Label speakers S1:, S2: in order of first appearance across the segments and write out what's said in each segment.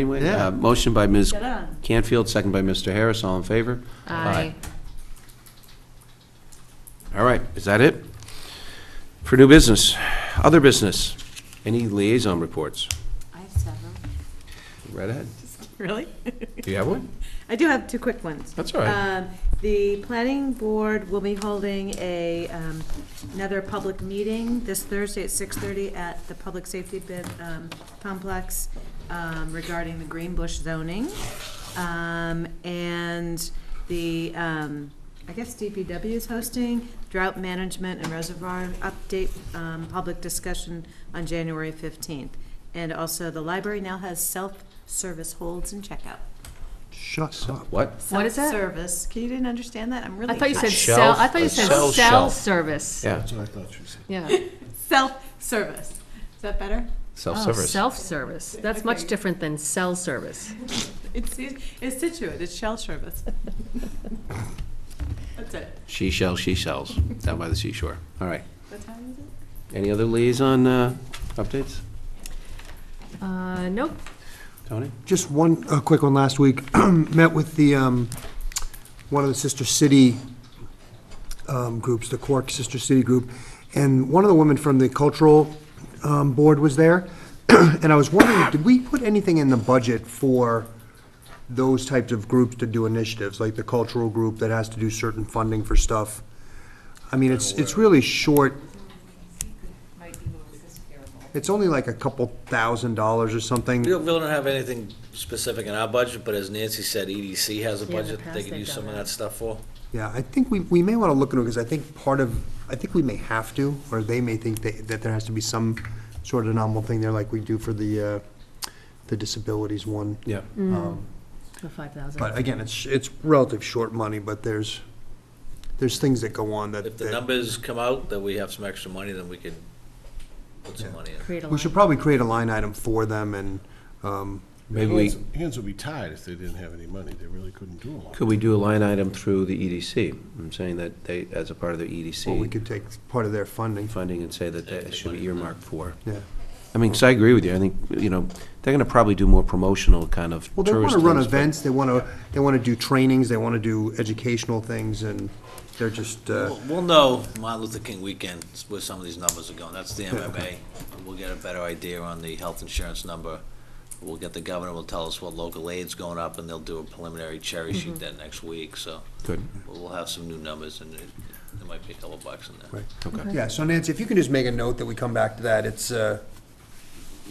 S1: Anyway,
S2: Yeah.
S1: uh, motion by Ms.
S3: Get on.
S1: Canfield, second by Mr. Harris, all in favor?
S4: Aye.
S1: All right, is that it? For new business, other business, any liaison reports?
S4: I have several.
S1: Right ahead.
S3: Really?
S1: Do you have one?
S3: I do have two quick ones.
S1: That's all right.
S3: Um, The planning board will be holding a, um, another public meeting this Thursday at 6:30 at the Public Safety Bid um, Complex um, regarding the Green Bush zoning. Um, And the, um, I guess DPW is hosting drought management and reservoir update, um, public discussion on January 15th. And also, the library now has self-service holds and checkout.
S2: Shut up.
S1: What?
S4: What is that?
S3: Self-service. Can you didn't understand that? I'm really.
S4: I thought you said sell,
S1: Shelf,
S4: I thought
S1: a
S4: you said
S1: sell
S4: cell
S1: shelf.
S4: service.
S1: Yeah,
S2: That's what I thought you said.
S4: Yeah.
S3: Self-service. Is that better?
S4: Oh,
S1: self-service.
S4: self-service. That's much
S3: Okay.
S4: different than cell service.
S3: It's, it's Situate, it's shell service. That's it.
S1: She sells, she sells, down by the seashore. All right.
S3: What time is it?
S1: Any other liaison uh, updates?
S4: Uh, nope.
S1: Tony?
S2: Just one, a quick one last week. Met with the, um, one of the Sister City um, groups, the Quark Sister City Group, and one of the women from the cultural um, board was there. And I was wondering, did we put anything in the budget for those types of groups to do initiatives, like the cultural group that has to do certain funding for stuff? I mean, it's, it's really short. It's only like a couple thousand dollars or something.
S5: We don't, we don't have anything specific in our budget, but as Nancy said, EDC has
S4: Yeah,
S5: a
S4: in the
S5: budget that they
S4: past
S5: can
S4: they've
S5: use
S4: done
S5: some of
S4: that.
S5: that stuff for.
S2: Yeah, I think we, we may want to look into it, because I think part of, I think we may have to, or they may think that, that there has to be some sort of nominal thing there, like we do for the, uh, the disabilities one.
S1: Yeah.
S4: Mm.
S2: Um,
S4: The five
S2: But
S4: thousand.
S2: again, it's, it's relative short money, but there's, there's things that go on that,
S5: If the
S2: that,
S5: numbers come out, that we have some extra money, then we can put some money in.
S4: Create a
S2: we should
S4: line.
S2: probably create a line item for them, and, um,
S1: Maybe we,
S6: Hands- Hands would be tied if they didn't have any money. They really couldn't do a lot.
S1: could we do a line item through the EDC? I'm saying that they, as a part of the
S2: or we
S1: EDC
S2: could take part of their funding,
S1: funding and say that that should be earmarked for.
S2: yeah.
S1: I mean, 'cause I agree with you. I think, you know, they're going to probably do more promotional kind of
S2: Well,
S1: tourist things.
S2: they want to run
S1: but-
S2: events, they want to, they want to do trainings, they want to do educational things, and they're just, uh,
S5: We'll- We'll know Martin Luther King weekend where some of these numbers are going. That's the MMA. We'll get a better idea on the health insurance number. We'll get the governor, will tell us what local aid's going up, and they'll do a preliminary cherry
S4: Mm-hmm.
S5: sheet that next week, so
S1: Good,
S5: we'll have some new numbers, and it- there might be a couple bucks in there.
S2: Right.
S1: okay.
S2: Yeah, so Nancy, if you can just make a note that we come back to that, it's, uh,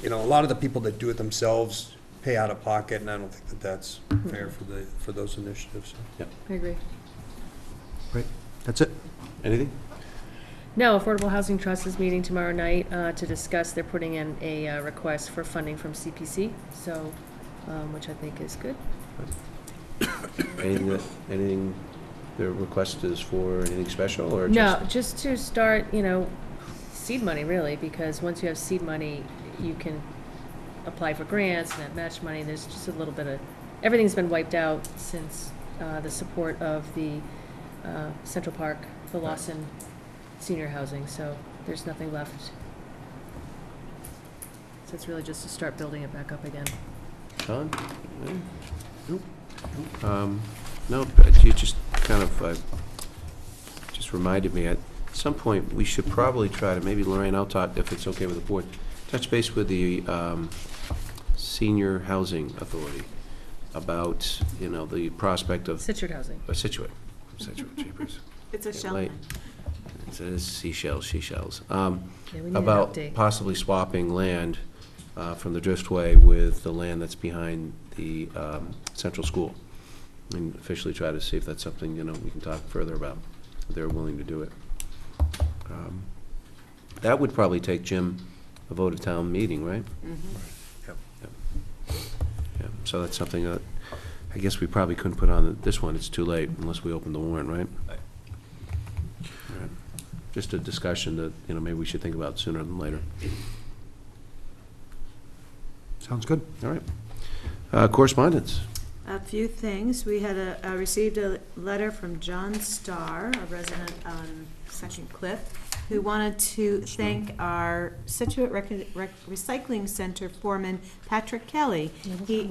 S2: you know, a lot of the people that do it themselves pay out of pocket, and I don't think that that's fair for the, for those initiatives.
S4: I agree.
S2: Right, that's it.
S1: Anything?
S4: No, Affordable Housing Trust is meeting tomorrow night uh, to discuss, they're putting in a uh, request for funding from CPC, so, um, which I think is good.
S1: Anything, that- anything their request is for, anything special, or just?
S4: No, just to start, you know, seed money really, because once you have seed money, you can apply for grants and have match money. There's just a little bit of, everything's been wiped out since uh, the support of the uh, Central Park, the Lawson Senior Housing, so there's nothing left. So it's really just to start building it back up again.
S1: Don? Um, No, but you just kind of, uh, just reminded me, at some point, we should probably try to, maybe Lorraine, I'll talk, if it's okay with the board, touch base with the um, Senior Housing Authority about, you know, the prospect of
S4: Situate Housing.
S1: uh, Situate, Situate, jeepers.
S3: It's a shell.
S1: Late.
S3: line.
S1: It says seashells, seashells. Um,
S4: Yeah, we need an
S1: About
S4: update.
S1: possibly swapping land uh, from the Driftway with the land that's behind the um, central school. And officially try to see if that's something, you know, we can talk further about, if they're willing to do it. Um, That would probably take, Jim, a vote of town meeting, right? Yeah, So that's something that, I guess we probably couldn't put on this one, it's too late unless we open the warrant, right?
S5: Right.
S1: All right. Just a discussion that, you know, maybe we should think about sooner than later.
S2: Sounds good.
S1: All right. Uh, Correspondence.
S3: A few things. We had a, uh, received a letter from John Starr, a resident on Second Cliff, who wanted to thank
S4: Mm-hmm.
S3: our Situate Rec- Rec- Recycling Center foreman, Patrick Kelly. He